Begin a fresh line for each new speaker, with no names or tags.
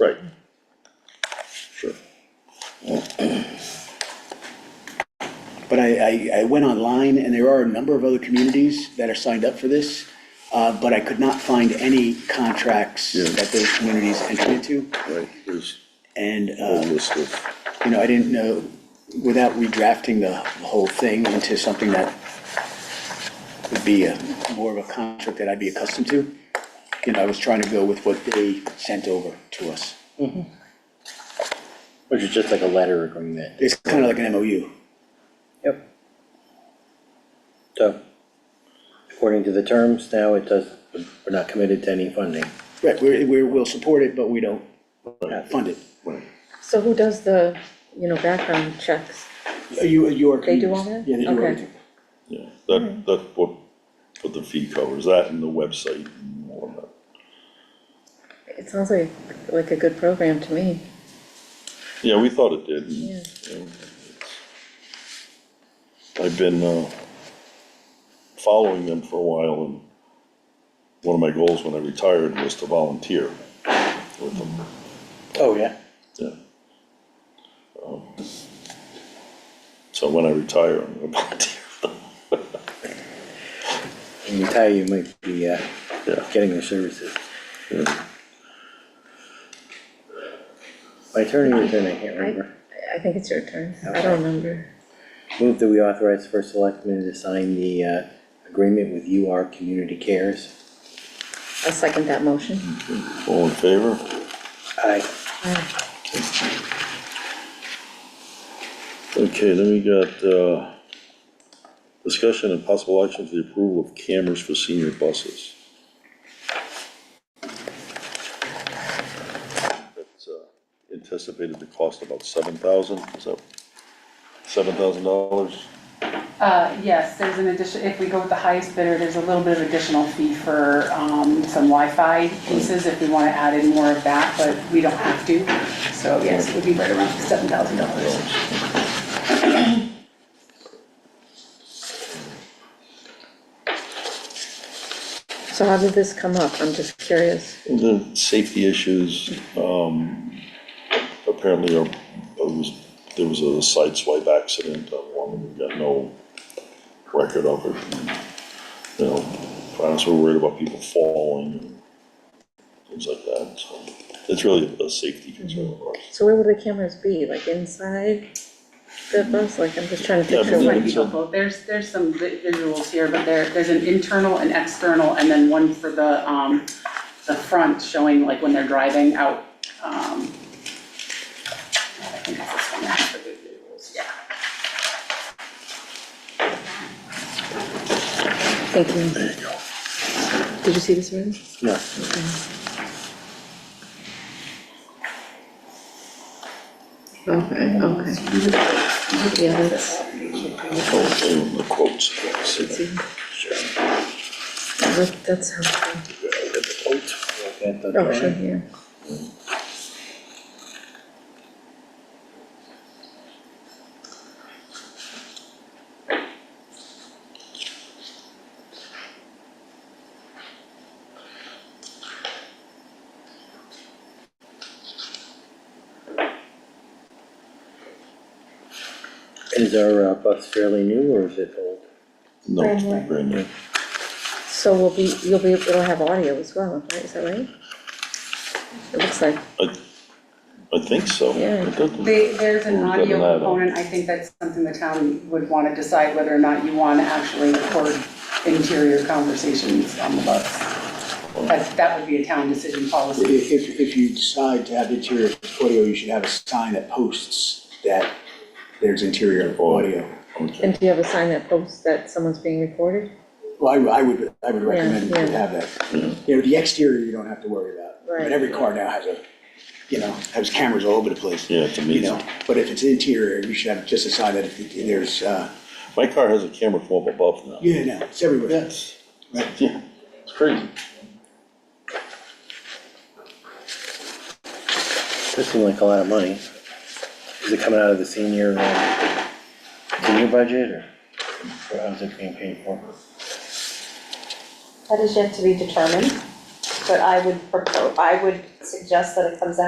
Right. Sure.
But I, I, I went online and there are a number of other communities that are signed up for this, uh, but I could not find any contracts
Yeah.
that those communities entered into.
Right, there's
And,
a
uh,
list of,
you know, I didn't know, without redrafting the whole thing into something that would be a, more of a contract that I'd be accustomed to, you know, I was trying to go with what they sent over to us.
Which is just like a letter agreement.
It's kind of like an MOU.
Yep. So, according to the terms, now it does, we're not committed to any funding.
Right, we're, we're, we'll support it, but we don't uh, fund it.
So who does the, you know, background checks?
You, you are.
They do all that?
Yeah, they do
Okay.
everything.
yeah, that, that's what, what the fee covers, that and the website and all of that.
It sounds like, like a good program to me.
Yeah, we thought it did. and,
Yeah.
you know, it's- I've been, uh, following them for a while and one of my goals when I retired was to volunteer with them,
Oh, yeah.
yeah. Um, So when I retire, I'm gonna volunteer with them.
And you tell you might be, uh,
Yeah.
getting the services. My turn or your turn, I can't
I,
remember.
I think it's your turn. I don't remember.
Move that we authorize first selectman to sign the, uh, agreement with UR Community Cares.
I'll second that motion.
All in favor?
Aye.
Okay, then we got, uh, discussion and possible action for the approval of cameras for senior buses. That's, uh, anticipated to cost about seven thousand, is that seven thousand dollars?
Uh, yes, there's an addition, if we go with the highest bidder, there's a little bit of additional fee for, um, some Wi-Fi pieces if we wanna add in more of that, but we don't have to. So yes, it would be right around seven thousand dollars.
So how did this come up? I'm just curious.
The safety issues, um, apparently are, it was, there was a sideswipe accident, that woman got no record of it. You know, parents were worried about people falling and things like that, so it's really a safety concern of ours.
So where would the cameras be? Like inside the bus? Like, I'm just trying to
Yeah,
picture.
but
what-
then-
Might be helpful. There's, there's some vi- visuals here, but there, there's an internal and external, and then one for the, um, the front showing like when they're driving out, um. I think it's this one, that's for the visuals, yeah.
Thank you. Did you see this one?
No.
Okay, okay. Yeah, that's,
So, and the quotes, safety.
that- that's helpful.
At the
Oh, sure,
time.
yeah.
Is our uh, bus fairly new or is it old?
No, it's brand new.
So we'll be, you'll be, it'll have audio as well, right? Is that right? It looks like,
I, I think so.
Yeah.
It doesn't-
They, there's an
We've got
audio
an add-on.
component, I think that's something the town would wanna decide whether or not you wanna actually record interior conversations on the bus. That's, that would be a town decision policy.
If, if, if you decide to have interior audio, you should have a sign that posts that there's interior audio.
Okay.
and do you have a sign that posts that someone's being recorded?
Well, I, would- I would, I would recommend you
yeah.
would have that. You know, the exterior, you don't have to worry about, but
Right.
every car now has a, you know, has cameras all over the place.
Yeah, it's
You
amazing.
know, but if it's interior, you should have just a sign that if there's, uh,
My car has a camera from up above now.
yeah, no, it's everywhere.
Yes.
Right.
Yeah, it's crazy.
This seemed like a lot of money. Is it coming out of the senior, uh, senior budget or or how's it being paid for?
That is yet to be determined, but I would propose, I would suggest that it comes out.